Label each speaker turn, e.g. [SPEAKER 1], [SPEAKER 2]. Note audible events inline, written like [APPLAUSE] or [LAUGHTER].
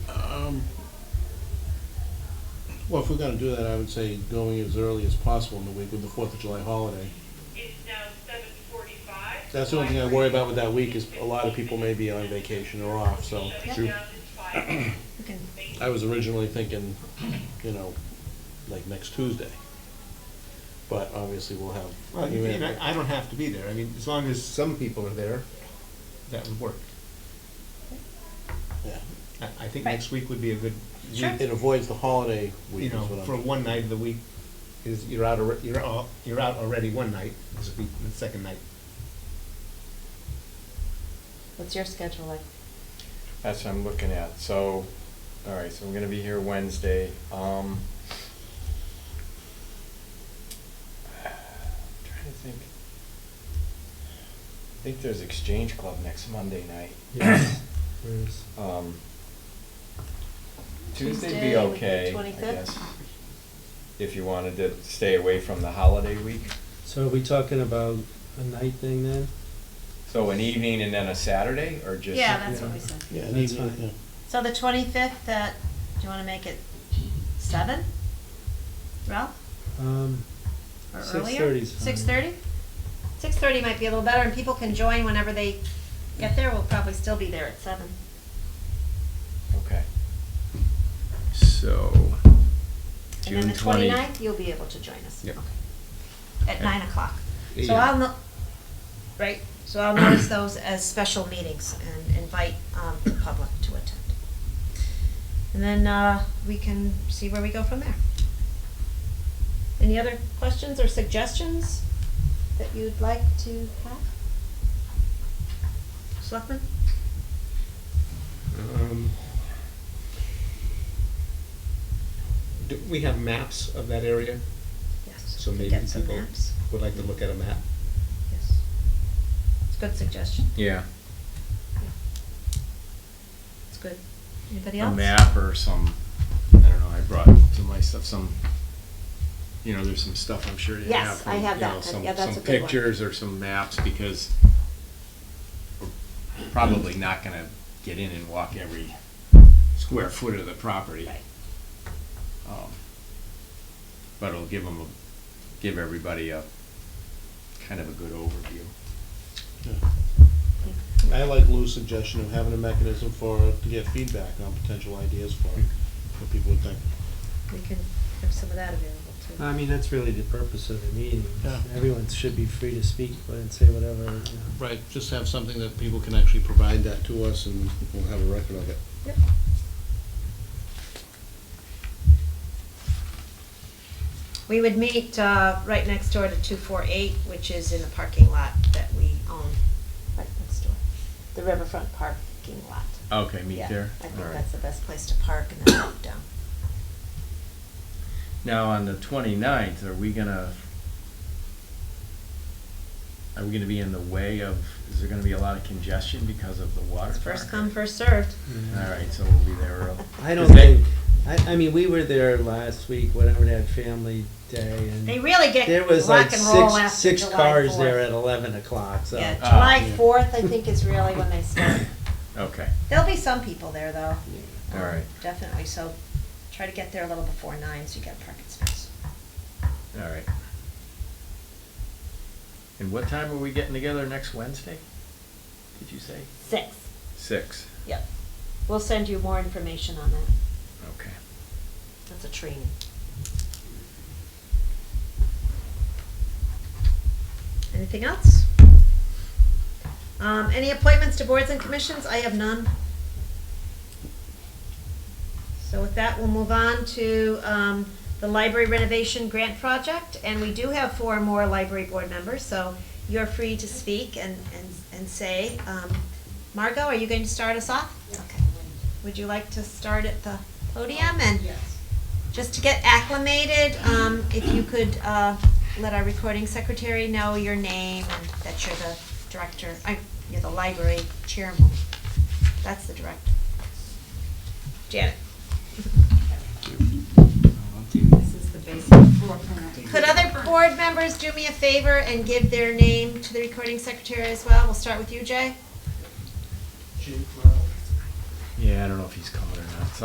[SPEAKER 1] Um, well, if we're gonna do that, I would say going as early as possible in the week with the Fourth of July holiday.
[SPEAKER 2] It's now seven forty-five.
[SPEAKER 1] That's the only thing I worry about with that week is a lot of people may be on vacation or off, so.
[SPEAKER 2] Shutting down is five.
[SPEAKER 3] We can,
[SPEAKER 1] [CLEARS THROAT] I was originally thinking, you know, like next Tuesday. But obviously we'll have.
[SPEAKER 4] Well,
[SPEAKER 1] you
[SPEAKER 4] you
[SPEAKER 1] may
[SPEAKER 4] mean,
[SPEAKER 1] have-
[SPEAKER 4] I, I don't have to be there. I mean, as long as some people are there, that would work.
[SPEAKER 1] yeah.
[SPEAKER 4] I, I think
[SPEAKER 3] Right.
[SPEAKER 4] next week would be a good
[SPEAKER 3] Sure.
[SPEAKER 4] week.
[SPEAKER 1] It avoids the holiday
[SPEAKER 4] You
[SPEAKER 1] week is
[SPEAKER 4] know,
[SPEAKER 1] what
[SPEAKER 4] for
[SPEAKER 1] I'm,
[SPEAKER 4] one night of the week, is you're out, alre- you're all, you're out already one night, this would be the second night.
[SPEAKER 3] what's your schedule like?
[SPEAKER 5] That's what I'm looking at, so, all right, so I'm gonna be here Wednesday, um. Trying to think. I think there's Exchange Club next Monday night. Um, Tuesday'd
[SPEAKER 3] Tuesday
[SPEAKER 5] be
[SPEAKER 3] would be
[SPEAKER 5] okay, I
[SPEAKER 3] 25th?
[SPEAKER 5] guess. If you wanted to stay away from the holiday week,
[SPEAKER 6] So are we talking about a night thing then?
[SPEAKER 5] so an evening and then a Saturday, or just?
[SPEAKER 3] Yeah, that's what we
[SPEAKER 6] yeah.
[SPEAKER 3] said.
[SPEAKER 1] yeah, and
[SPEAKER 6] That's
[SPEAKER 1] even,
[SPEAKER 6] fine.
[SPEAKER 1] yeah.
[SPEAKER 3] So the twenty-fifth, that, do you wanna make it seven? Ralph,
[SPEAKER 6] Um,
[SPEAKER 3] or earlier?
[SPEAKER 6] 6:30 is fine.
[SPEAKER 3] Six thirty? Six thirty might be a little better, and people can join whenever they get there, we'll probably still be there at seven.
[SPEAKER 5] Okay. So.
[SPEAKER 3] And then
[SPEAKER 5] June
[SPEAKER 3] the
[SPEAKER 5] 20
[SPEAKER 3] twenty-ninth, you'll be able to join us.
[SPEAKER 4] Yep.
[SPEAKER 3] Okay. At
[SPEAKER 4] Okay.
[SPEAKER 3] nine o'clock. So
[SPEAKER 4] Yeah.
[SPEAKER 3] I'll, no- right, so I'll notice those as special meetings and invite um, the public to attend. And then uh, we can see where we go from there. Any other questions or suggestions that you'd like to have? Selectmen?
[SPEAKER 4] Um, Do we have maps of that area?
[SPEAKER 3] Yes.
[SPEAKER 4] So
[SPEAKER 3] we
[SPEAKER 4] maybe
[SPEAKER 3] Get some
[SPEAKER 4] people
[SPEAKER 3] maps.
[SPEAKER 4] would like to look at a map.
[SPEAKER 3] Yes. It's a good suggestion.
[SPEAKER 5] Yeah,
[SPEAKER 3] It's good. Anybody
[SPEAKER 5] a
[SPEAKER 3] else?
[SPEAKER 5] map or some, I don't know, I brought some of my stuff, some, you know, there's some stuff I'm sure you have.
[SPEAKER 3] Yes, I
[SPEAKER 5] from,
[SPEAKER 3] have
[SPEAKER 5] you
[SPEAKER 3] that.
[SPEAKER 5] know, some-
[SPEAKER 3] Yeah, that's a
[SPEAKER 5] Some
[SPEAKER 3] good one.
[SPEAKER 5] pictures or some maps, because we're probably not gonna get in and walk every square foot of the property.
[SPEAKER 3] Right.
[SPEAKER 5] Um, But it'll give them, give everybody a, kind of a good overview.
[SPEAKER 1] I like Lou's suggestion of having a mechanism for, to get feedback on potential ideas for, what people would think.
[SPEAKER 3] We can have some of that available too.
[SPEAKER 6] I mean, that's really the purpose of the meeting. is
[SPEAKER 1] Yeah.
[SPEAKER 6] Everyone should be free to speak and say whatever, you know.
[SPEAKER 1] Right, just have something that people can actually provide that to us and we'll have a record of it.
[SPEAKER 3] Yep. We would meet uh, right next door to 248, which is in the parking lot that we own, right next door, the riverfront parking lot.
[SPEAKER 5] Okay, Oh, meet
[SPEAKER 3] Yeah,
[SPEAKER 5] there?
[SPEAKER 3] I
[SPEAKER 5] All
[SPEAKER 3] think
[SPEAKER 5] right.
[SPEAKER 3] that's the best place to park and then walk down.
[SPEAKER 5] Now, on the 29th, are we gonna, are we gonna be in the way of, is there gonna be a lot of congestion because of the water
[SPEAKER 3] It's
[SPEAKER 5] park?
[SPEAKER 3] first come, first served.
[SPEAKER 5] All right, so we'll be there early.
[SPEAKER 6] I don't
[SPEAKER 5] Is that-
[SPEAKER 6] think, I, I mean, we were there last week, whatever that family day and.
[SPEAKER 3] They really get
[SPEAKER 6] There was
[SPEAKER 3] rock
[SPEAKER 6] like
[SPEAKER 3] and roll
[SPEAKER 6] six,
[SPEAKER 3] after
[SPEAKER 6] six
[SPEAKER 3] July
[SPEAKER 6] cars
[SPEAKER 3] 4th.
[SPEAKER 6] there at eleven o'clock, so.
[SPEAKER 3] Yeah,
[SPEAKER 5] Ah,
[SPEAKER 3] July
[SPEAKER 1] yeah.
[SPEAKER 3] 4th, I think, is really when they start.
[SPEAKER 5] Okay,
[SPEAKER 3] There'll be some people there, though. Um,
[SPEAKER 5] all right,
[SPEAKER 3] Definitely, so try to get there a little before nine, so you get a parking space.
[SPEAKER 5] all right. And what time are we getting together next Wednesday? Did you say?
[SPEAKER 3] Six,
[SPEAKER 5] Six,
[SPEAKER 3] yep. We'll send you more information on that.
[SPEAKER 5] okay.
[SPEAKER 3] That's a training. Anything else? Um, any appointments to boards and commissions? I have none. So with that, we'll move on to, um, the library renovation grant project, and we do have four more library board members, so you're free to speak and, and, and say, um, Margot, are you going to start us off? Okay. Would you like to start at the podium and? Just to get acclimated, um, if you could, uh, let our recording secretary know your name and that you're the director, I, you're the library chairman. That's the director. Janet.
[SPEAKER 7] This is the basic floor plan.
[SPEAKER 3] Could other board members do me a favor and give their name to the recording secretary as well? We'll start with you, Jay.
[SPEAKER 5] Yeah, I don't know if he's coming or not, so